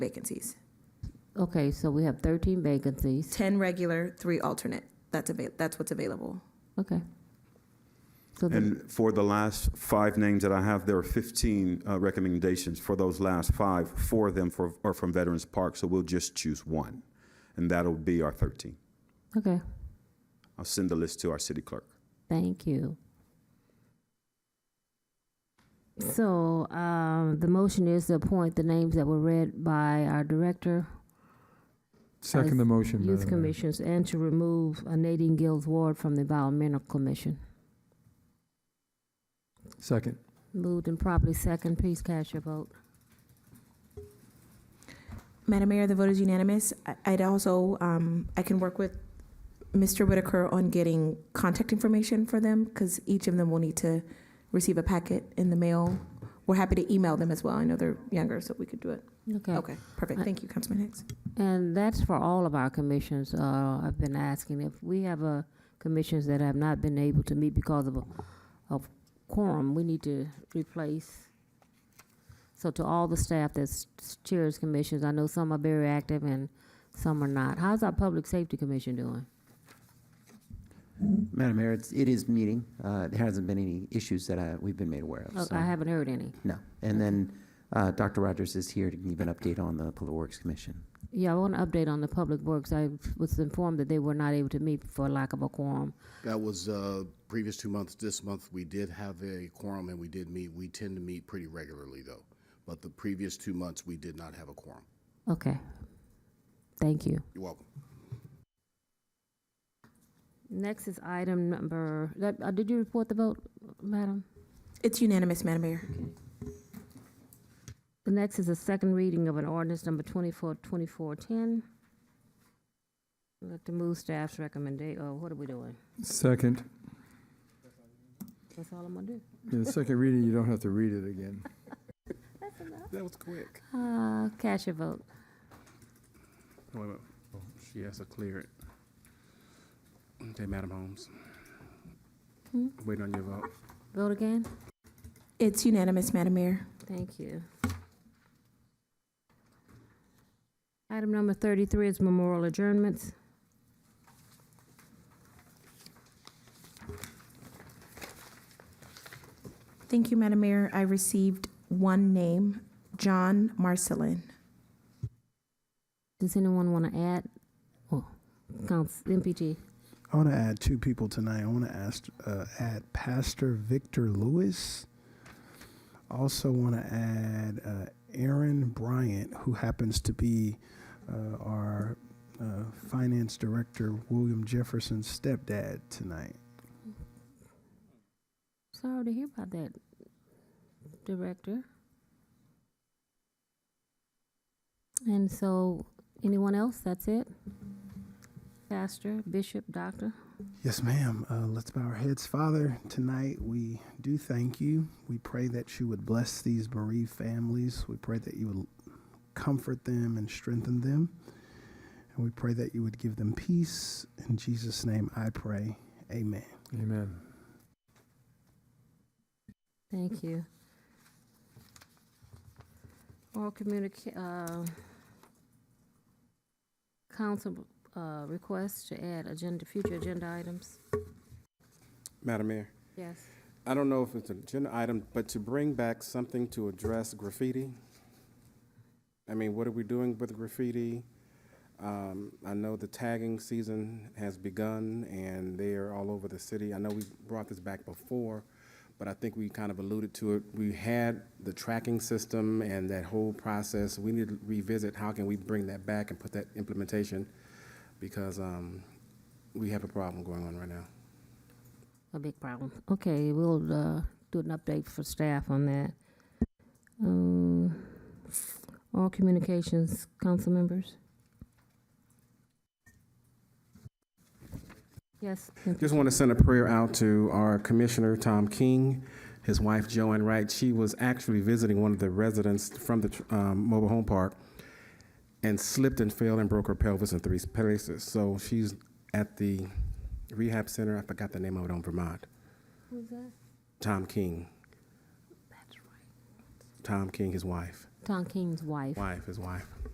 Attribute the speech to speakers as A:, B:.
A: vacancies.
B: Okay, so we have 13 vacancies.
A: 10 regular, three alternate. That's avail, that's what's available.
B: Okay. So the,
C: And for the last five names that I have, there are 15 uh, recommendations. For those last five, four of them for- are from Veterans Park, so we'll just choose one. And that'll be our 13.
B: okay,
C: I'll send the list to our city clerk.
B: thank you. So um, the motion is to appoint the names that were read by our director,
D: Second the motion,
B: youth
D: Madam Mayor.
B: commissions, and to remove uh, Nadine Gills Ward from the environmental commission.
D: Second.
B: Moved and properly second. Please cast your vote.
A: Madam Mayor, the vote is unanimous. I- I'd also, um, I can work with Mr. Whitaker on getting contact information for them because each of them will need to receive a packet in the mail. We're happy to email them as well. I know they're younger, so we could do it.
B: Okay.
A: Okay, perfect. Thank you, Councilman Hicks.
B: And that's for all of our commissions. Uh, I've been asking if we have uh, commissions that have not been able to meet because of, a- of quorum, we need to replace. So to all the staff that chairs commissions, I know some are very active and some are not. How's our Public Safety Commission doing?
E: Madam Mayor, it's, it is meeting. Uh, there hasn't been any issues that I, we've been made aware
B: Oh,
E: of. so-
B: I haven't heard any.
E: No. And then, uh, Dr. Rogers is here to give an update on the Public Works Commission.
B: Yeah, I want an update on the Public Works. I was informed that they were not able to meet for lack of a quorum.
F: That was uh, previous two months. This month, we did have a quorum and we did meet. We tend to meet pretty regularly, though. But the previous two months, we did not have a quorum.
B: Okay. Thank you.
F: You're welcome.
B: Next is item number, that, uh, did you report the vote, madam?
A: It's unanimous, Madam Mayor.
B: The next is a second reading of an ordinance number twenty-four, twenty-four, ten. I'd like to move staff's recommendation, oh, what are we doing?
D: Second.
B: That's all I'm gonna do.
D: In the second reading, you don't have to read it again.
F: That was quick.
B: Uh, cast your vote.
F: Wait a minute. She has to clear it. Okay, Madam Holmes.
B: Hmm?
F: Waiting on your vote.
B: Vote again?
A: It's unanimous, Madam Mayor.
B: Thank you. Item number thirty-three is memorial adjournments.
A: Thank you, Madam Mayor. I received one name, John Marcelin.
B: Does anyone wanna add? Oh, Council, MPT,
G: I want to add two people tonight. I want to ask, uh, add Pastor Victor Lewis. Also, want to add uh, Aaron Bryant, who happens to be uh, our uh, finance director, William Jefferson's stepdad tonight.
B: sorry to hear about that, Director. And so, anyone else? That's it? Pastor, bishop, doctor?
G: Yes, ma'am. Uh, let's bow our heads. Father, tonight we do thank you. We pray that you would bless these bereaved families. We pray that you would comfort them and strengthen them. And we pray that you would give them peace. In Jesus' name I pray. Amen.
D: Amen.
B: Thank you. Oral communica, uh, council, uh, request to add agenda, future agenda items?
H: Madam Mayor,
B: Yes.
H: I don't know if it's an agenda item, but to bring back something to address graffiti. I mean, what are we doing with graffiti? Um, I know the tagging season has begun and they are all over the city. I know we brought this back before, but I think we kind of alluded to it. We had the tracking system and that whole process. We need to revisit, how can we bring that back and put that implementation? Because, um, we have a problem going on right now.
B: A big problem. Okay, we'll, uh, do an update for staff on that. Um, all communications, council members? Yes.
H: Just want to send a prayer out to our Commissioner Tom King, his wife Joanne Wright. She was actually visiting one of the residents from the um, mobile home park and slipped and fell and broke her pelvis in three places. So she's at the rehab center, I forgot the name of it, on Vermont.
B: Who's that?
H: Tom King,
B: That's right.
H: Tom King, his wife,
B: Tom King's wife.
H: wife, his wife.